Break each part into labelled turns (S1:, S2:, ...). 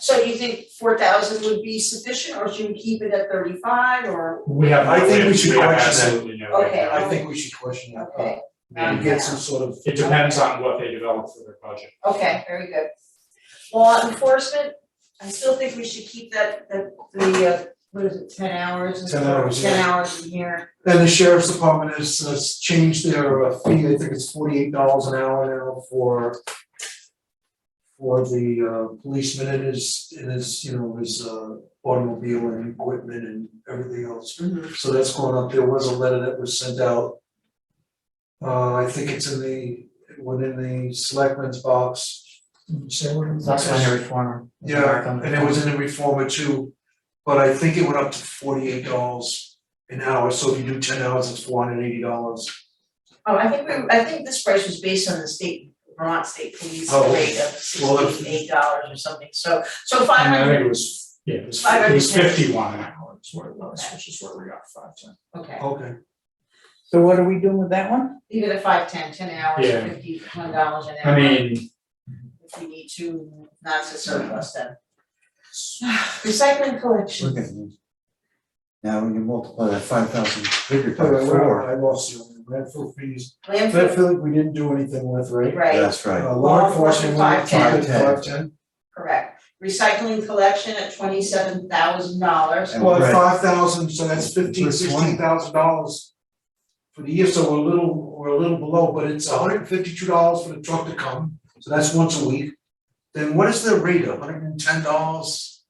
S1: So you think four thousand would be sufficient, or should we keep it at thirty-five, or,
S2: We have.
S3: I think we should
S2: have
S3: question it.
S2: Absolutely no.
S1: Okay.
S2: idea.
S3: I think we should question that, uh,
S1: okay,
S3: and get some sort of.
S2: It depends on what they develop for their budget.
S1: okay, very good. Law enforcement, I still think we should keep that, that, the, uh, what is it, ten hours? and
S3: 10 hours,
S1: Ten
S3: yeah.
S1: hours a year,
S3: Then the sheriff's department has, has changed their uh, fee, I think it's forty-eight dollars an hour now for for the uh, policeman and his, and his, you know, his uh, automobile and equipment and everything else. So that's going up, there was a letter that was sent out. Uh, I think it's in the, it went in the selectmen's box. Did you say what it was?
S4: That's when the reformer.
S3: Yeah, and it was in the reformer too, but I think it went up to forty-eight dollars an hour, so if you do ten hours, it's four hundred and eighty dollars.
S1: Oh, I think we, I think this price was based on the state, Vermont State Police
S3: Oh,
S1: rate of
S3: well, if-
S1: sixty-eight dollars or something, so, so five
S2: And I
S1: hundred,
S2: think it was, yeah, it was,
S1: Five
S2: it was
S1: hundred and ten.
S2: fifty-one an hour is what it was, which is where we got five ten.
S1: okay,
S3: Okay,
S4: So what are we doing with that one?
S1: leave it at five, ten, ten hours,
S2: Yeah.
S1: fifty-one dollars an hour.
S2: I mean,
S1: if we need to, not to surplus them. Recycling collection,
S5: Okay. Now, when you multiply that five thousand figure by
S3: Wait, wait, wait,
S5: four,
S3: I lost you, on the landfill fees,
S1: landfill,
S3: landfill, we didn't do anything with, right?
S1: right,
S5: that's right,
S3: Uh, law enforcement,
S1: Law
S3: we
S1: enforcement,
S3: kept it
S5: five
S3: five ten,
S1: correct. Recycling collection at twenty-seven thousand dollars,
S5: And
S3: well,
S5: right.
S3: five thousand, so that's fifteen,
S5: That's
S3: sixteen thousand dollars for the year, so we're a little, we're a little below, but it's hundred and fifty-two dollars for the truck to come, so that's once a week. Then what is the rate, hundred and ten dollars?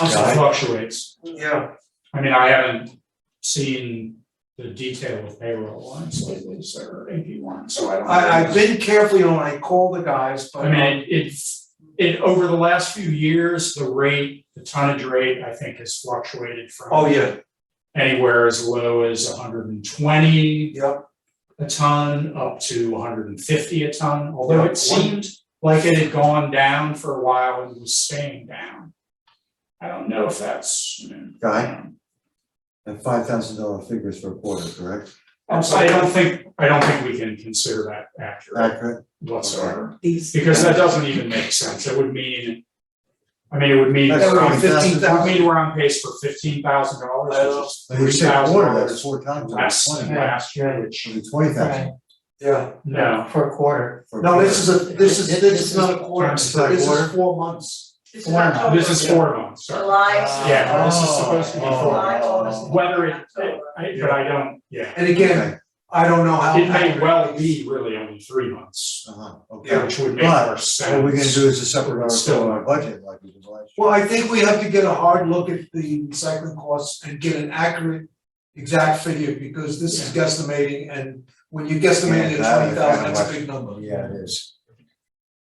S3: I'm
S2: it
S3: sorry,
S2: fluctuates.
S3: yeah.
S2: I mean, I haven't seen the detail of payroll lines lately, so eighty-one, so I don't.
S3: I I've been carefully on, I call the guys, but
S2: I mean, it's, it, over the last few years, the rate, the tonnage rate, I think has fluctuated from.
S3: Oh, yeah,
S2: Anywhere as low as hundred and twenty
S3: yeah,
S2: a ton up to hundred and fifty a ton, although
S3: Yeah.
S2: it seemed like it had gone down for a while and was staying down. I don't know if that's, you know,
S5: Guy? and five thousand dollar figures for a quarter, correct?
S2: I'm sorry, I don't think, I don't think we can consider that accurate
S5: Accurate?
S2: whatsoever,
S4: These.
S2: because that doesn't even make sense, it would mean. I mean, it would mean,
S5: That's
S2: it
S3: that would
S2: would
S3: be fifteen thousand,
S5: $15,000.
S2: mean we're on pace for fifteen thousand dollars, which is
S5: Like you
S2: three
S5: said, a
S2: thousand
S5: quarter, that's
S2: dollars
S5: four times,
S2: less
S5: that's
S2: than
S5: twenty,
S2: last year, which,
S5: twenty
S4: Right,
S5: thousand.
S3: yeah,
S2: no,
S4: for a quarter.
S5: for a
S3: no,
S5: quarter.
S3: this is a, this is, this is not a quarter,
S2: Times
S3: this
S5: that
S3: is
S5: quarter.
S3: four months.
S1: this is
S4: Four now.
S1: October,
S2: this is four months, sorry.
S1: July,
S2: Yeah, this is supposed to be
S5: Oh,
S2: four.
S1: July, August, and
S2: Whether it,
S1: October.
S2: I, but I don't, yeah,
S3: And again,
S5: Okay,
S3: I don't know how.
S2: it may
S3: accurate
S2: well
S3: is.
S2: be really only three months,
S5: uh-huh, okay.
S2: which would make more sense.
S5: What we're gonna do is a separate article
S2: Still.
S5: on our budget, like we did last year.
S3: Well, I think we have to get a hard look at the recycling costs and get an accurate, exact figure, because this is guesstimating, and when you guesstimate
S5: Yeah,
S3: at
S5: that
S3: twenty
S5: is
S3: thousand,
S5: kinda
S3: that's a
S5: what-
S3: big number.
S5: Yeah, it is.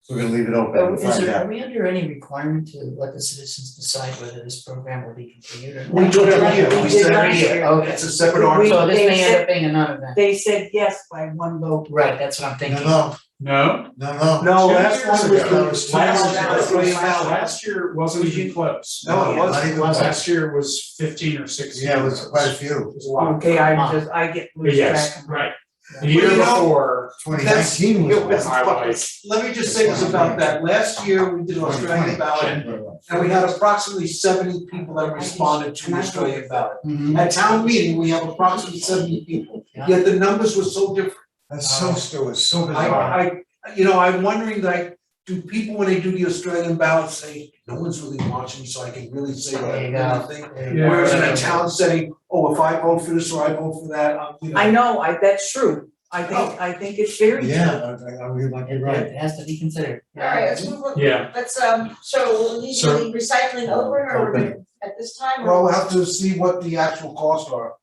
S5: So we're gonna leave it open
S4: But
S5: and
S4: Oh, is
S5: find
S4: there, are
S5: out.
S4: we under any requirement to let the citizens decide whether this program will be continued or not?
S3: We do it every year, we
S4: We
S3: said
S4: did
S3: every
S4: last
S3: year,
S4: year, okay.
S3: it's a separate article.
S4: So this
S6: they
S4: may end
S6: said-
S4: up being a non-event. Oh,
S6: They said yes by one vote.
S4: Right, that's what I'm thinking.
S5: No,
S2: No,
S5: no, no, no.
S3: No,
S2: Two
S3: last
S2: years
S3: one was
S2: ago.
S3: the, last
S2: last year,
S3: one was the way out.
S2: last year wasn't even close.
S3: No, it
S5: Not
S3: wasn't.
S5: even close.
S2: Last year was fifteen or sixteen.
S5: Yeah, it was quite a
S2: It
S5: few.
S2: was a lot.
S6: Okay,
S4: Huh.
S6: I just, I get
S2: But
S6: loose track.
S2: yes, right, the
S3: Well,
S2: year
S3: you know-
S2: before,
S5: Twenty nineteen was
S3: It was-
S5: last.
S2: I was-
S3: Let me just say this about that, last year we did Australian
S5: 2020.
S3: ballot, and we had approximately seventy people that responded to the Australian ballot.
S4: Mhm.
S3: At town meeting, we have approximately seventy people, yet the numbers were so different.
S5: That's so, still was so bizarre.
S3: Uh, I, I, you know, I'm wondering like, do people, when they do the Australian ballot, say, no one's really watching, so I can really say what I
S4: There you
S3: really think?
S4: There you go.
S3: Whereas in a town setting, oh, if I vote for this or I vote for that, I'm, you know.
S6: I know, I, that's true. I
S3: Oh.
S6: think, I think it's very true.
S5: Yeah, I, I, I really like
S4: It,
S5: it, right.
S4: it has to be considered.
S1: Alright, let's move on,
S2: yeah,
S1: let's, um, so we'll need to
S2: So-
S1: leave recycling open, or we're gonna, at this time,
S3: Well,
S1: or
S3: we'll have to see what the actual costs are,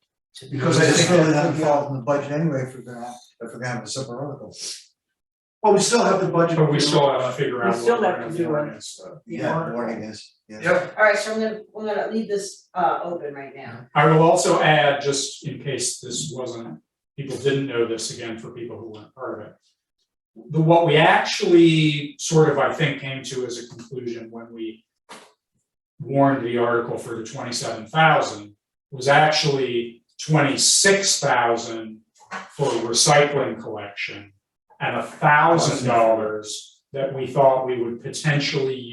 S3: because I
S5: It's
S3: think
S5: really
S3: that-
S5: not involved in the budget anyway, if we're gonna, have- if we're gonna have a separate article.
S3: well, we still have the budget.
S2: but we still have to figure out
S6: We
S2: what
S6: still
S2: we're
S6: have to
S2: gonna
S6: do
S2: do
S6: it.
S2: against the-
S5: Yeah, warning is, yeah.
S3: Yep.
S1: alright, so I'm gonna, we're gonna leave this, uh, open right now.
S2: I will also add, just in case this wasn't, people didn't know this again for people who weren't part of it. The, what we actually sort of, I think, came to as a conclusion when we warned the article for the twenty-seven thousand was actually twenty-six thousand for recycling collection and a thousand dollars that we thought we would potentially